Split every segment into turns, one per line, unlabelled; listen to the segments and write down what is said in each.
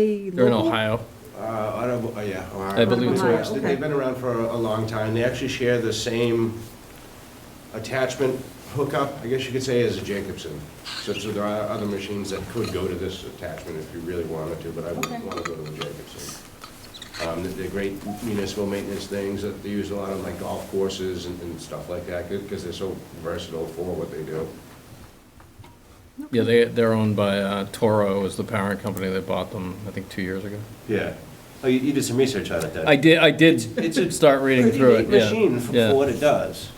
a
They're in
local-
Ohio.
Uh, Auto, uh, yeah. Ohio.
I believe it's
Ohio,
Yes, they-
okay.
They've been around for a a long time. They actually share the same attachment hookup, I guess you could say, as a Jacobson. So so there are other machines that could go to this attachment if you really wanted to, but I wouldn't
Okay.
want to go to a Jacobson. Um, they're- They're great municipal maintenance things that they use a lot on like golf courses and and stuff like that because they're so versatile for what they do.
Yeah, they, they're owned by uh, Toro is the parent company that bought them, I think, two years ago.
Yeah. Oh, you- you did some research on it then?
I did, I did
it's
start reading through it,
Pretty neat
yeah.
machine for-
yeah.
for what it does.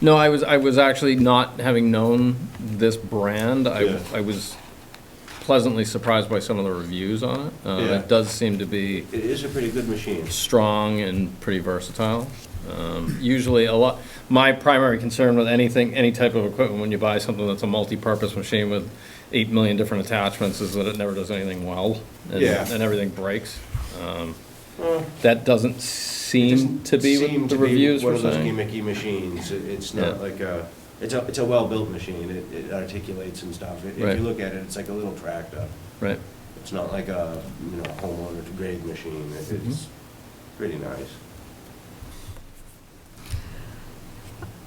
No, I was, I was actually not, having known this brand, I,
Yeah.
I was pleasantly surprised by some of the reviews on it. Uh,
Yeah.
It does seem to be
It is a pretty good machine.
strong and pretty versatile. Um, Usually a lot, my primary concern with anything, any type of equipment, when you buy something that's a multi-purpose machine with eight million different attachments, is that it never does anything well. and-
Yeah.
And everything breaks. Um, That doesn't seem to be
Seem
what the
to be
reviews
One
were
of those
saying.
gimmicky machines, It- it's
Yeah.
not like a, it's a, it's a well-built machine, it it articulates and stuff. If
Right.
you look at it, it's like a little tractor.
Right,
It's not like a, you know, homeowner grade machine, It-
Mhm.
it's pretty nice.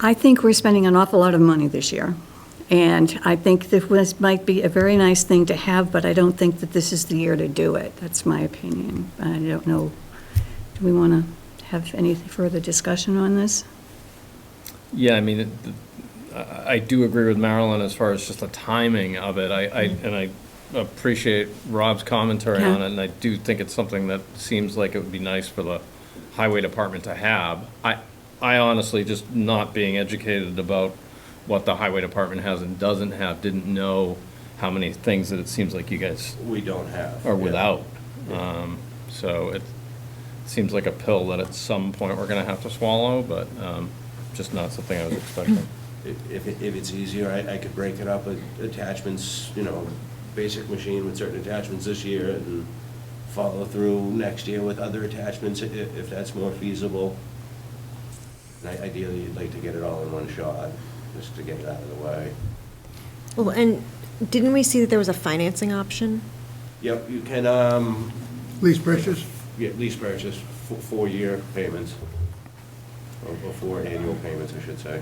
I think we're spending an awful lot of money this year, and I think that this might be a very nice thing to have, but I don't think that this is the year to do it. That's my opinion. I don't know, do we want to have any further discussion on this?
yeah, I mean, it- I, I do agree with Marilyn as far as just the timing of it. I, I, and I appreciate Rob's commentary
Yeah.
on it, and I do think it's something that seems like it would be nice for the highway department to have. I, I honestly, just not being educated about what the highway department has and doesn't have, didn't know how many things that it seems like you guys
We don't have.
are
yeah.
without. Um, so it seems like a pill that at some point we're gonna have to swallow, but, um, just not something I was expecting.
If, if it- if it's easier, I, I could break it up, with attachments, you know, basic machine with certain attachments this year and follow through next year with other attachments i- i- if that's more feasible. And I- ideally, you'd like to get it all in one shot, just to get it out of the way.
Well, and didn't we see that there was a financing option?
Yep, you can, um,
Lease purchase?
yeah, lease purchase, fo- four-year payments, or or four annual payments, I should say.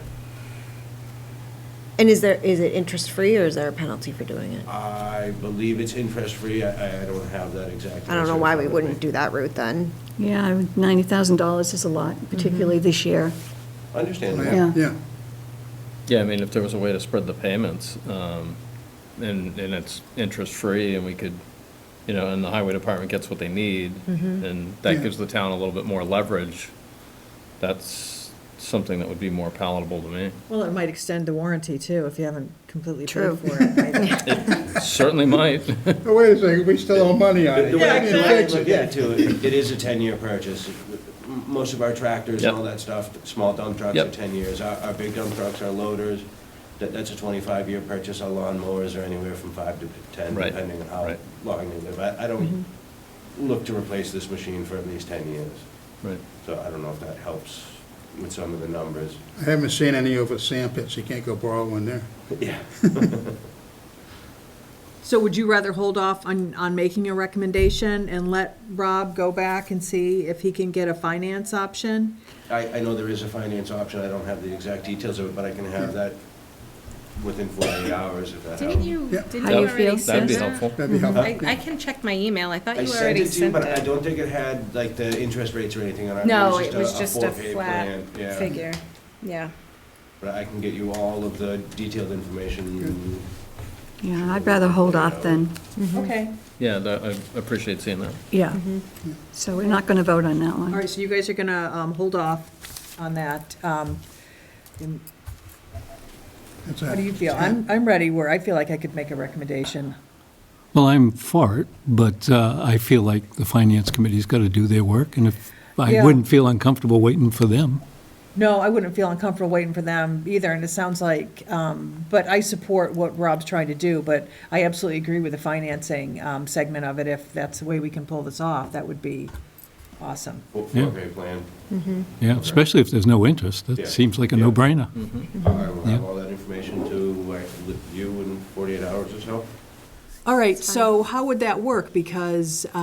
And is there, is it interest-free or is there a penalty for doing
Uh,
it?
I believe it's interest-free, I, I don't have that exact.
I don't know
answer
why
in
we
front of
wouldn't
me.
do that route then.
Yeah, I would- $90,000 is a lot,
Mm-hmm.
particularly this year.
Understandable.
Yeah.
Yeah.
Yeah, I mean, if there was a way to spread the payments, um, and, and it's interest-free and we could, you know, and the highway department gets what they need, and that
Yeah.
gives the town a little bit more leverage, that's something that would be more palatable to me.
Well, it might extend the warranty too, if you haven't completely
True.
paid for it. right?
Certainly might.
Oh, wait a second, we still owe money on it.
The way I
You didn't fix
look
it.
at it too, it it is a ten-year purchase. M- Most of our tractors and all
Yep.
that stuff, small dump trucks are
Yep.
ten years. Our, our big dump trucks, our loaders, that, that's a twenty-five year purchase. Our lawnmowers are anywhere from five to ten,
Right,
depending on how
right.
long they live. I, I don't
Mm-hmm.
look to replace this machine for at least ten years.
Right.
So I don't know if that helps with some of the numbers.
I haven't seen any over sand pits, you can't go borrow one there.
Yeah.
So would you rather hold off on, on making a recommendation and let Rob go back and see if he can get a finance option?
I, I know there is a finance option. I don't have the exact details of it, but I can have that within forty-eight hours if that helps.
Didn't you,
Yeah.
didn't you
How do
already
you feel,
That'd
send
be
that?
helpful.
That'd be helpful.
I, I can check my email, I thought
I
you
sent
already
it to you,
sent
but I
it.
don't think it had like the interest rates or anything on it.
No, it was just a
four-page
flat
plan, yeah.
figure, yeah.
But I can get you all of the detailed
Mm-hmm.
information.
Yeah, I'd rather hold off then.
Okay.
Yeah, that, I appreciate seeing that.
Yeah.
Mm-hmm.
So we're not going to vote on that
All
one.
right, so you guys are gonna, um, hold off on that. Um, and
That's
How
it.
do you feel? I'm, I'm ready where I feel like I could make a recommendation.
Well, I'm for it, but uh, I feel like the Finance Committee's got to do their work, and if, I
Yeah.
wouldn't feel uncomfortable waiting for them.
No, I wouldn't feel uncomfortable waiting for them either, and it sounds like, um, but I support what Rob's trying to do, but I absolutely agree with the financing, um, segment of it. If that's the way we can pull this off, that would be awesome.
Yeah.
Four-pay plan.
Mm-hmm.
Yeah, especially if there's no interest.
Yeah.
That seems like a
Yeah.
no-brainer.
I will have
Yeah.
all that information to uh, you in forty-eight hours or so.
All right, so how would that work? Because,